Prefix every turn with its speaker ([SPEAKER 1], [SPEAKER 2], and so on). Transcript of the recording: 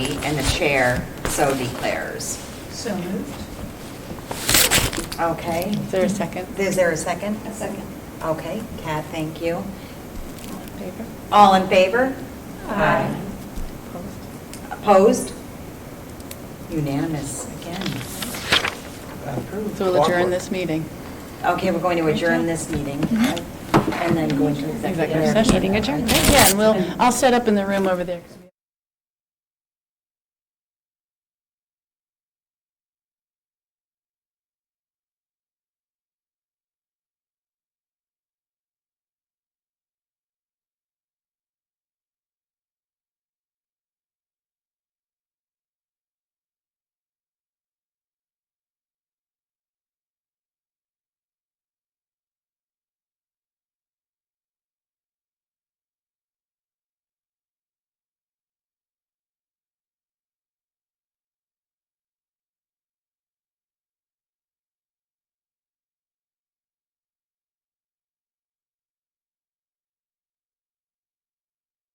[SPEAKER 1] and the chair so declares.
[SPEAKER 2] So moved.
[SPEAKER 1] Okay.
[SPEAKER 3] Is there a second?
[SPEAKER 1] Is there a second?
[SPEAKER 2] A second.
[SPEAKER 1] Okay, Kat, thank you.
[SPEAKER 3] Favor?
[SPEAKER 1] All in favor? Aye.
[SPEAKER 3] Opposed?
[SPEAKER 1] Opposed? Unanimous again.
[SPEAKER 4] Approved.
[SPEAKER 3] So we'll adjourn this meeting.
[SPEAKER 1] Okay, we're going to adjourn this meeting and then go into executive.
[SPEAKER 3] Executive session.
[SPEAKER 5] Meeting adjourned.
[SPEAKER 3] Yeah, and we'll, I'll set up in the room over there.